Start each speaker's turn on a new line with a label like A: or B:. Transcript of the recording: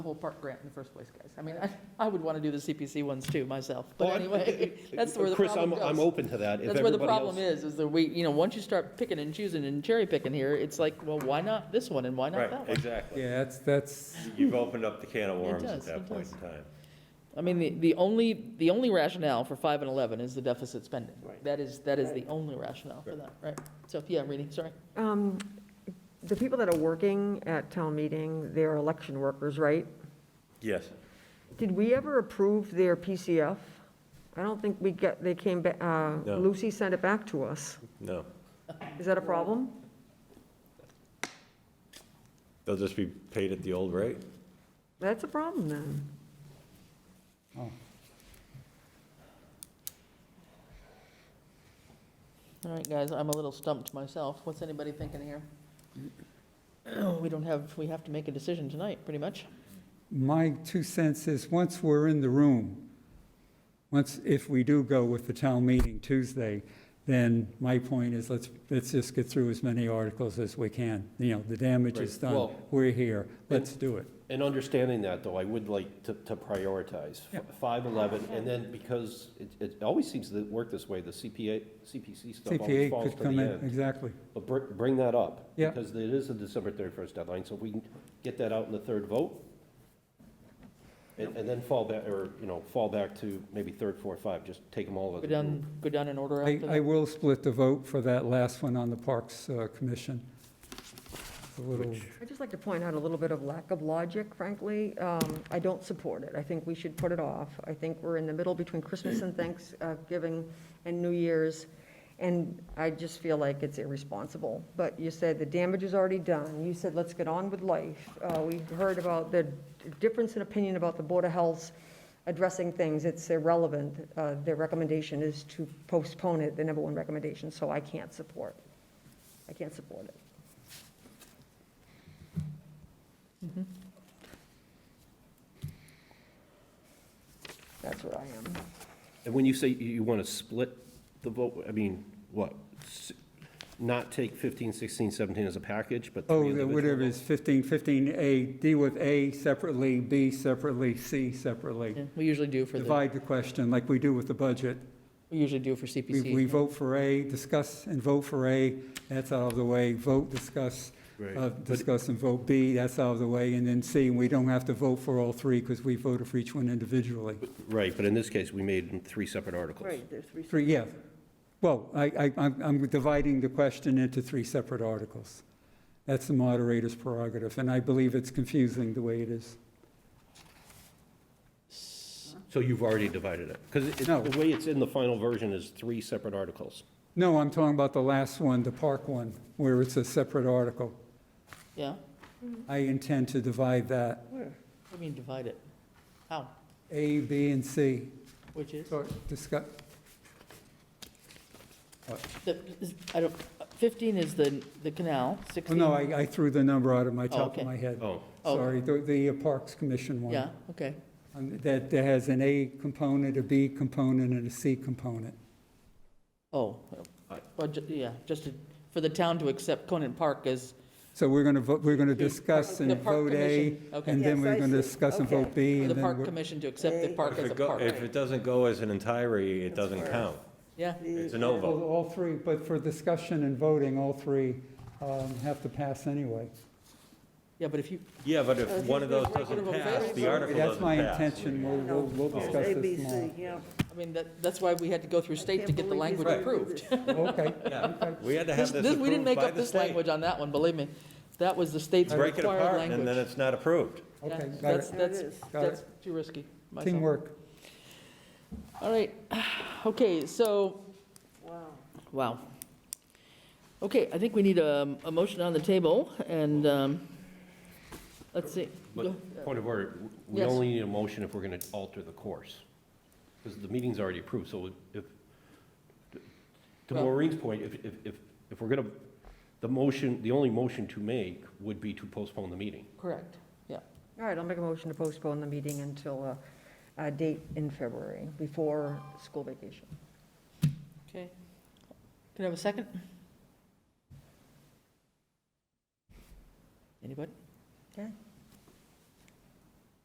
A: the whole park grant in the first place, guys. I mean, I, I would want to do the CPC ones too myself,
B: Oh,
A: but
B: I-
A: anyway, that's where the
B: Chris,
A: problem
B: I'm,
A: goes.
B: I'm open to that. if
A: That's where the
B: everybody
A: problem
B: else-
A: is, is that we, you know, once you start picking and choosing and cherry picking here, it's like, well, why not this one and why not that
C: Right,
A: one?
C: exactly.
D: Yeah, that's, that's,
C: You've opened up the can of worms at
A: does, it
C: that point
A: does.
C: in time.
A: I mean, the, the only, the only rationale for five and eleven is the deficit spending.
B: Right.
A: That is, that is the only rationale for that, right? So, yeah, Rini, sorry.
E: Um, The people that are working at town meeting, they're election workers, right?
C: Yes.
E: Did we ever approve their PCF? I don't think we get, they came, ba- uh,
C: No.
E: Lucy sent it back to us.
C: No.
E: Is that a problem?
C: They'll just be paid at the old rate.
E: That's a problem then.
A: All right, guys, I'm a little stumped myself. What's anybody thinking here? We don't have, we have to make a decision tonight, pretty much.
D: my two cents is, once we're in the room, once, if we do go with the town meeting Tuesday, then my point is, let's, let's just get through as many articles as we can. You know, the damage is
B: Right,
D: done,
B: well-
D: we're here, let's do it.
B: And understanding that, though, I would like to, to prioritize
D: Yeah.
B: five, eleven, and then because it, it always seems to work this way, the CPA, CPC stuff always
D: CPA
B: falls
D: could
B: to the
D: come in,
B: end.
D: exactly.
B: But br- bring that up.
D: Yeah.
B: Because it is a December thirty-first deadline, so if we can get that out in the third vote, and, and then fall back, or, you know, fall back to maybe third, fourth, five, just take them all as
A: Go
B: a group.
A: down, go down in order
D: I,
A: after
D: I
A: that.
D: will split the vote for that last one on the Parks uh, Commission. It's A little,
E: I'd just like to point out a little bit of lack of logic, frankly. Um, I don't support it. I think we should put it off. I think we're in the middle between Christmas and Thanksgiving and New Year's, and I just feel like it's irresponsible. But you said the damage is already done. You said, let's get on with life. Uh, We heard about the difference in opinion about the Board of Health's addressing things. It's irrelevant. Uh, Their recommendation is to postpone it, the number one recommendation, so I can't support. I can't support it. That's where I am.
B: And when you say you, you want to split the vote, I mean, what? S- Not take 15, 16, 17 as a package, but
D: oh,
B: three individual
D: whatever
B: votes?
D: is 15, 15A, deal with A separately, B separately, C
A: Yeah,
D: separately.
A: We usually do for the,
D: Divide the question like we do with the budget.
A: we usually do for
D: We, we
A: CPC.
D: vote for A, discuss and vote for A, that's out of the way. Vote, discuss,
B: Right.
D: uh, discuss and vote B, that's out of the way. And then C, we don't have to vote for all three because we voted for each one individually.
B: Right, but in this case, we made them three separate articles.
E: there's three.
D: Three, yeah. Well, I, I, I'm I'm dividing the question into three separate articles. That's the moderator's prerogative, and I believe it's confusing the way it is.
B: So you've already divided it? Because
D: No.
B: the way it's in the final version is three separate articles.
D: No, I'm talking about the last one, the park one, where it's a separate article.
A: Yeah,
D: I intend to divide that,
A: I mean, divide it. How?
D: A, B, and C.
A: Which is?
D: So discuss,
A: The, I don't, fifteen is the, the canal,
D: oh,
A: sixteen.
D: no, I, I threw the number out of my top
A: okay.
D: of my head.
B: Oh,
A: Oh.
D: Sorry, the, the uh, Parks Commission one.
A: Yeah, okay.
D: Um, That, that has an A component, a B component, and a C component.
A: Oh, well, ju- yeah, just to- for the town to accept Conant Park as
D: So we're going to, we're going to discuss
A: the
D: and
A: park
D: vote A,
A: commission. Okay.
D: and then
F: Yes,
D: we're
F: I
D: going to
F: see.
D: discuss and vote
F: Okay.
D: B,
A: For
D: and
A: the
D: then
A: park
D: we're...
A: commission to accept the
F: Hey.
A: park
C: If
A: as
C: it
A: a
C: go-
A: park.
C: if it doesn't go as an entirety, it doesn't count.
A: Yeah,
C: It's a no
D: Well,
C: vote.
D: All three, but for discussion and voting, all three um, have to pass anyway.
A: yeah, but if you,
C: Yeah, but if one of those doesn't
A: regular
C: pass,
A: vote.
C: the article
D: That's
C: doesn't
D: my
C: pass.
D: intention, we'll, we'll- we'll discuss
F: A, B,
D: this
F: C,
D: tomorrow.
F: yeah.
A: I mean, that, that's why we had to go through state to get the language
C: Right.
A: approved.
D: Okay,
C: Yeah, We had to
A: This,
C: have this
A: this- we didn't
C: approved
A: make
C: by
A: up
C: the
A: this
C: state.
A: language on that one, believe me. That was the state's
C: Break it
A: required
C: apart and then
A: language.
C: it's not approved.
A: Yeah,
D: okay, got
A: That's,
D: it,
F: There it
A: that's,
F: is.
D: Got
A: that's too risky. myself.
D: teamwork.
A: All right, okay, so
F: Wow.
A: Wow. Okay, I think we need a, a motion on the table, and, um, let's see. Go-
B: but point of order, we
A: Yes.
B: only need a motion if we're going to alter the course. Because the meeting's already approved, so if, to
A: Well-
B: Maureen's point, if, if, if if we're going to, the motion, the only motion to make would be to postpone the meeting.
A: Correct, yeah.
E: All right, I'll make a motion to postpone the meeting until uh, a date in February, before school vacation.
A: Okay. Can I have a second? Anybody?
E: Okay.